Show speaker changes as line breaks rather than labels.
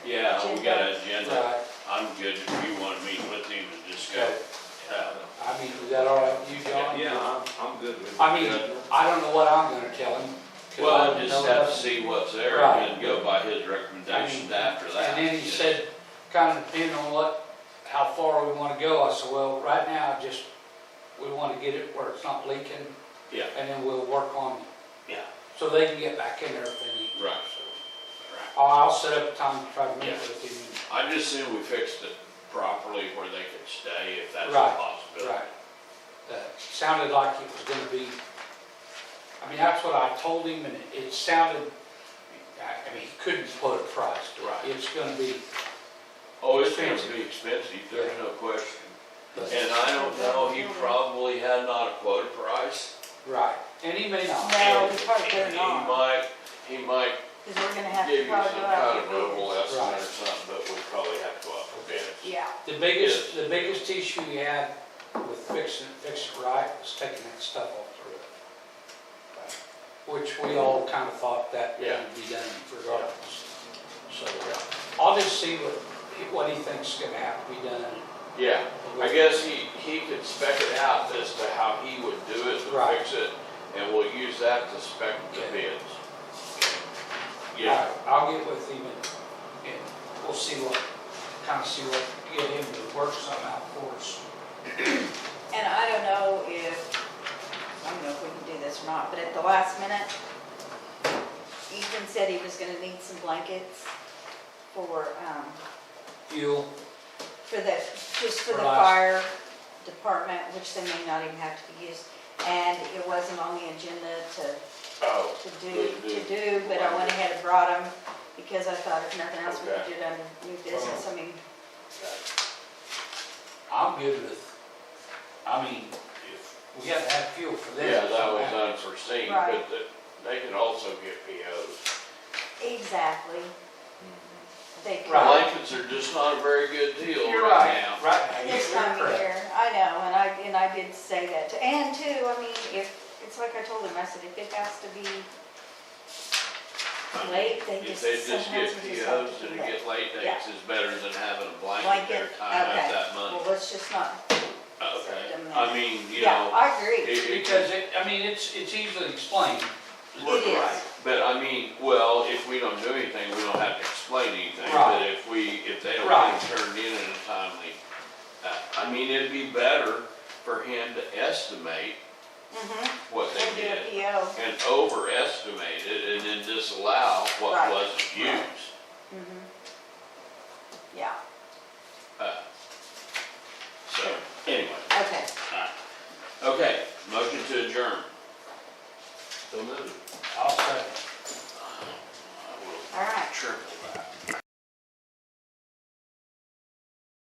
I mean, I don't know what I'm gonna tell him. 'cause I
Well,
don't
just
know
have to
nothing.
see what's there
Right.
and then go by his recommendations after that.
And then he
Yes.
said, kind of depending on what, how far we wanna go, I said, well, right now, just, we wanna get it where it's not leaking.
Yeah.
And then we'll work on,
Yeah,
so they can get back in there if they need.
right,
So,
right.
I'll, I'll set up a time to try to meet
Yeah.
with him,
I just assume we fixed it properly where they could stay if that's a
Right,
possibility.
right. Uh, Sounded like it was gonna be, I mean, that's what I told him, and it- it sounded, I, I mean, he couldn't put a price to
Right.
it. It's gonna be,
Oh, it's gonna
Expensive.
be expensive, there's no question.
but-
And I don't know, he probably had not a quoted price.
right, and he may not.
No, he's probably
And
better
He
not,
might, he might
because we're gonna have
give
to
you
probably
some
go
kind
out
of
and get
verbal
bids.
estimate
Right.
or something, but we probably have to go out for bids.
Yeah,
The biggest, the biggest issue we had with fixing, fixing it right was taking that stuff off the roof. Which we all kind of thought that would
Yeah.
be done regardless. So I'll just see what, he- what he thinks is gonna have to be done.
Yeah, I guess he, he could spec it out as to how he would do it to
Right.
fix it, and we'll use that to spec the
Okay.
bids. Yeah,
All right, I'll get with him and, and we'll see what, kind of see what, get him to work something out for us.
and I don't know if, I don't know if we can do this or not, but at the last minute, Ethan said he was gonna need some blankets for, um,
Fuel,
for the, just for the
For us.
fire department, which they may not even have to be used. And it wasn't on the agenda to
oh,
to do, to do, but I went ahead and brought them because I thought if nothing else, we could do it under new business, I mean,
I'm good with, I mean, if we have to have fuel for this.
yeah, that was unforeseen, but
Right.
the- they can also get POs.
exactly. They could.
Right.
Blankets are just not a very good deal
You're
right
right,
now.
right. now,
This
you're
time of
correct.
year, I know, and I, and I did say that, too. and too, I mean, if, it's like I told them, I said, if it has to be late, they
If
just,
they just
sometimes
get
we just have
POs
to do
and
that.
get late
Yeah.
dates is better than having a blanket
Blanket,
there
okay.
tying up that money.
Well, let's just not,
Okay,
them
I
there.
mean, you
yeah,
know,
I agree.
it, it could
Because it, I mean, it's, it's easily explained.
Look
It is.
right, But I mean, well, if we don't do anything, we don't have to explain anything, but
Right.
if we, if they don't
Right.
get turned in in a timely, uh, I mean, it'd be better for him to estimate
Mhm.
what
We'll
they
do
did
a PO.
and overestimate it and then disallow what
Right.
wasn't
Right.
used.
Mhm. Yeah,
Uh, So, anyway,
okay.
alright. Okay, motion to adjourn. So moved.
I'll say.
I will
All right,
triple